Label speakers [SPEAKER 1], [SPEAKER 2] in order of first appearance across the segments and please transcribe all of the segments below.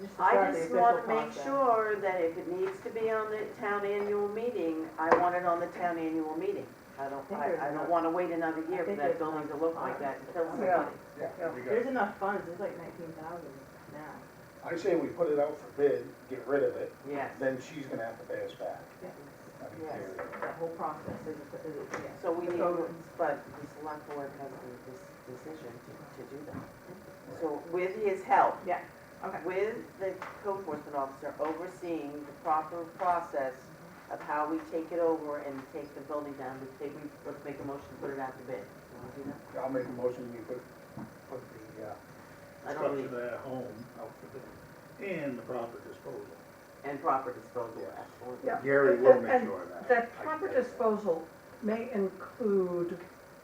[SPEAKER 1] This is
[SPEAKER 2] I
[SPEAKER 1] not the
[SPEAKER 2] just
[SPEAKER 1] official
[SPEAKER 2] wanna make
[SPEAKER 1] contract.
[SPEAKER 2] sure that if it needs to be on the town annual meeting, I want it on the town annual meeting. I don't,
[SPEAKER 1] think there's
[SPEAKER 2] I, I
[SPEAKER 1] enough-
[SPEAKER 2] don't wanna wait another
[SPEAKER 1] I
[SPEAKER 2] year for
[SPEAKER 1] think
[SPEAKER 2] that
[SPEAKER 1] there's
[SPEAKER 2] building to
[SPEAKER 1] enough
[SPEAKER 2] look like
[SPEAKER 1] time.
[SPEAKER 2] that and kill
[SPEAKER 1] Yeah.
[SPEAKER 2] somebody.
[SPEAKER 3] Yeah, we got
[SPEAKER 1] There's
[SPEAKER 3] it.
[SPEAKER 1] enough funds, there's like nineteen thousand now.
[SPEAKER 3] I say we put it out for bid, get rid of it,
[SPEAKER 2] Yes.
[SPEAKER 3] then she's gonna have to pay us back. I mean,
[SPEAKER 2] Yes.
[SPEAKER 3] period.
[SPEAKER 1] That whole process is, is, yeah.
[SPEAKER 2] So we
[SPEAKER 1] The
[SPEAKER 2] need,
[SPEAKER 1] code.
[SPEAKER 2] but the select board has the dis- decision to, to do that. So with his help,
[SPEAKER 1] Yeah, okay.
[SPEAKER 2] with the code enforcement officer overseeing the proper process
[SPEAKER 1] Mm-hmm.
[SPEAKER 2] of how we take it over and take the building down, we take, we, let's make a motion, to put it out to bid. You wanna do that?
[SPEAKER 3] I'll make a motion, we put, put the, uh,
[SPEAKER 2] I don't
[SPEAKER 4] structure
[SPEAKER 2] need,
[SPEAKER 4] that home out for bid and the proper disposal.
[SPEAKER 2] and proper disposal, absolutely.
[SPEAKER 5] Yeah.
[SPEAKER 6] Gary will make
[SPEAKER 5] And-
[SPEAKER 6] sure of that.
[SPEAKER 5] That proper disposal may include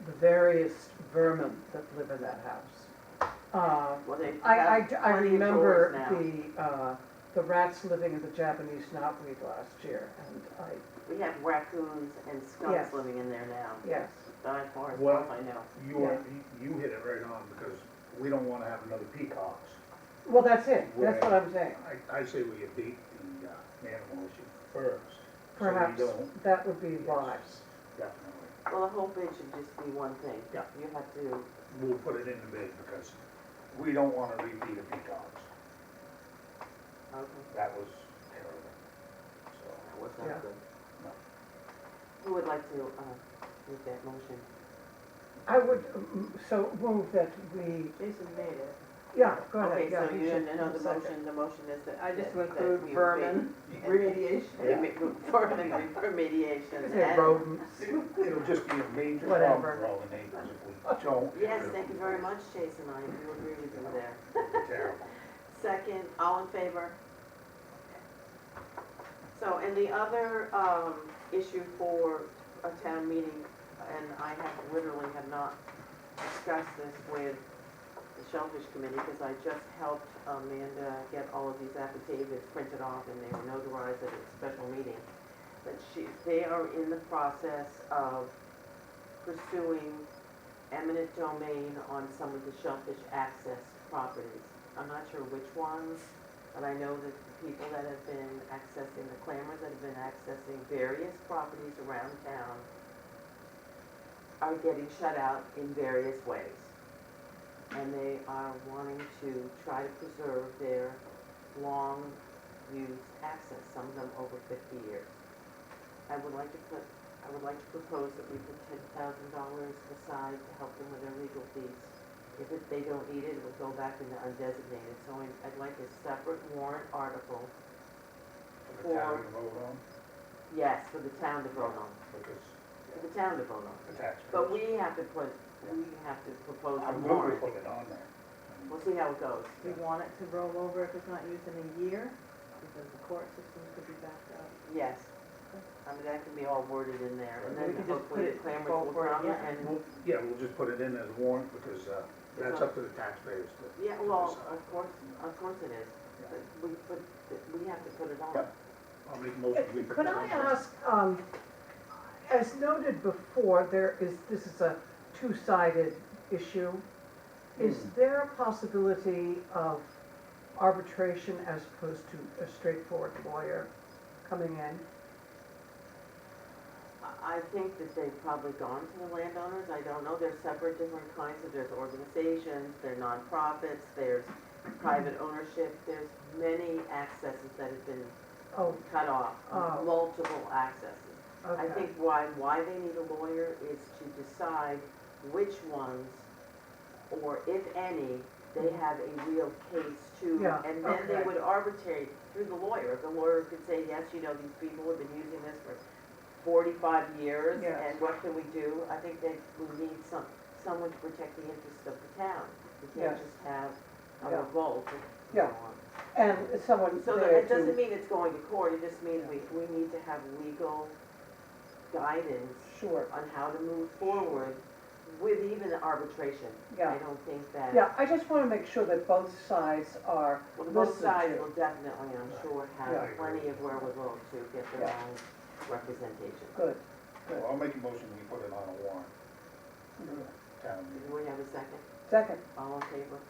[SPEAKER 5] the various vermin that live in that house. Uh,
[SPEAKER 2] Well, they
[SPEAKER 5] I, I,
[SPEAKER 2] have
[SPEAKER 5] I
[SPEAKER 2] plenty of doors
[SPEAKER 5] remember
[SPEAKER 2] now.
[SPEAKER 5] the, uh, the rats living in the Japanese knotweed last year, and I,
[SPEAKER 2] We have raccoons and skunks
[SPEAKER 5] Yes.
[SPEAKER 2] living in there now,
[SPEAKER 5] yes,
[SPEAKER 2] by far, as
[SPEAKER 4] Well-
[SPEAKER 2] far as I know.
[SPEAKER 4] You, are- you hit it right on because we don't wanna have another peacocks.
[SPEAKER 5] well, that's it, that's what I'm saying.
[SPEAKER 4] I, I say we abate the uh, animal issue first. so we
[SPEAKER 5] Perhaps
[SPEAKER 4] don't-
[SPEAKER 5] that would be wise.
[SPEAKER 4] Definitely.
[SPEAKER 2] Well, the whole bid should just be one thing.
[SPEAKER 4] Yeah.
[SPEAKER 2] You have to,
[SPEAKER 4] We'll put it in the bid because
[SPEAKER 3] we don't wanna repeat a peacocks.
[SPEAKER 2] okay,
[SPEAKER 3] That was terrible. So,
[SPEAKER 2] that was
[SPEAKER 5] Yeah.
[SPEAKER 2] not good.
[SPEAKER 3] No.
[SPEAKER 2] Who would like to, uh, make that motion?
[SPEAKER 5] I would, um, so move that we,
[SPEAKER 1] Jason made it.
[SPEAKER 5] yeah, go ahead, yeah.
[SPEAKER 2] Okay, so
[SPEAKER 5] he
[SPEAKER 2] you,
[SPEAKER 5] should-
[SPEAKER 2] know, the
[SPEAKER 5] second.
[SPEAKER 2] motion, the motion is that.
[SPEAKER 1] I just
[SPEAKER 2] that-
[SPEAKER 1] went
[SPEAKER 2] that
[SPEAKER 1] through
[SPEAKER 2] we
[SPEAKER 1] vermin
[SPEAKER 2] abate-
[SPEAKER 1] remediation.
[SPEAKER 2] Remi- Vermin remediation.
[SPEAKER 5] Say
[SPEAKER 2] and-
[SPEAKER 5] rodents.
[SPEAKER 3] It'll just be a major problem
[SPEAKER 5] Whatever.
[SPEAKER 3] for all the neighbors if we don't. get
[SPEAKER 2] Yes,
[SPEAKER 3] rid of
[SPEAKER 2] thank you
[SPEAKER 3] the
[SPEAKER 2] very much,
[SPEAKER 3] place.
[SPEAKER 2] Jason, I do agree with you there.
[SPEAKER 3] Terrible.
[SPEAKER 2] Second, all in favor? So, and the other, um, issue for a town meeting, and I have, literally have not discussed this with the Shellfish Committee, because I just helped Amanda get all of these affidavits printed off, and they were notarized at a special meeting. But she, they are in the process of pursuing eminent domain on some of the shellfish access properties. I'm not sure which ones, but I know that the people that have been accessing, the clammers that have been accessing various properties around town are getting shut out in various ways. And they are wanting to try to preserve their long used access, some of them over fifty years. I would like to put I would like to propose that we put ten thousand dollars aside to help them with their legal fees. If it- they don't need it, it would go back into undesignated, so I- I'd like a separate warrant article,
[SPEAKER 3] For the town to vote on,
[SPEAKER 2] yes, for the town to vote on,
[SPEAKER 3] because
[SPEAKER 2] for the town to vote on.
[SPEAKER 3] the taxpayers.
[SPEAKER 2] But we have to put, we have to propose a
[SPEAKER 3] I'm going to
[SPEAKER 2] warrant.
[SPEAKER 3] put it on there. I mean,
[SPEAKER 2] We'll see how it goes.
[SPEAKER 1] We want it to roll over if it's not used in a year, because the court system could be backed up.
[SPEAKER 2] Yes. I mean, that can be all worded in there, and
[SPEAKER 1] Right. We
[SPEAKER 2] then
[SPEAKER 1] can just put
[SPEAKER 2] hopefully the
[SPEAKER 1] it
[SPEAKER 2] clammers
[SPEAKER 1] forward,
[SPEAKER 2] will come
[SPEAKER 1] yeah.
[SPEAKER 2] and,
[SPEAKER 4] we'll, yeah, we'll just put it in as a warrant because, uh, that's up to the taxpayers to.
[SPEAKER 2] yeah,
[SPEAKER 4] to
[SPEAKER 2] well,
[SPEAKER 4] decide.
[SPEAKER 2] of course, of course it is. But we, but we have to put it on.
[SPEAKER 3] Yeah.
[SPEAKER 4] I'll make a motion. we put
[SPEAKER 5] Could
[SPEAKER 4] it
[SPEAKER 5] I
[SPEAKER 4] on first.
[SPEAKER 5] ask, um, as noted before, there is, this is a two-sided issue. Is there a possibility of arbitration as opposed to a straightforward lawyer coming in?
[SPEAKER 2] I I think that they've probably gone to the landowners, I don't know, there's separate different kinds of, there's organizations, there are nonprofits, there's private ownership, there's many accesses that have been
[SPEAKER 5] Oh,
[SPEAKER 2] cut off,
[SPEAKER 5] Oh.
[SPEAKER 2] multiple accesses. I
[SPEAKER 5] okay.
[SPEAKER 2] think why, why they need a lawyer is to decide which ones, or if any, they have a real case to.
[SPEAKER 5] Mm-hmm. Yeah,
[SPEAKER 2] And then they
[SPEAKER 5] okay.
[SPEAKER 2] would arbitrate through the lawyer. The lawyer could say, yes, you know, these people have been using this for forty-five years,
[SPEAKER 5] Yes.
[SPEAKER 2] and what can we do? I think they, we need some, someone to protect the interests of the town. We can't
[SPEAKER 5] Yes.
[SPEAKER 2] just have a
[SPEAKER 5] Yeah.
[SPEAKER 2] revolt and
[SPEAKER 5] Yeah.
[SPEAKER 2] so on.
[SPEAKER 5] And someone
[SPEAKER 2] So that, it doesn't mean it's going to court, it just means we, we need to have legal guidance
[SPEAKER 5] Sure,
[SPEAKER 2] on how to move forward with even arbitration. I don't think that,
[SPEAKER 5] Yeah, I just want to make sure that both sides are
[SPEAKER 2] well, both
[SPEAKER 5] Listen
[SPEAKER 2] sides
[SPEAKER 5] to-
[SPEAKER 2] will definitely, I'm sure,
[SPEAKER 5] Yeah.
[SPEAKER 2] have plenty of wherewithal to get their
[SPEAKER 5] Yeah.
[SPEAKER 2] own representation.
[SPEAKER 5] good.
[SPEAKER 3] Well, I'll make a motion, we put it on a warrant. Town meeting.
[SPEAKER 2] Do we have a second?
[SPEAKER 5] Second.
[SPEAKER 2] All in favor?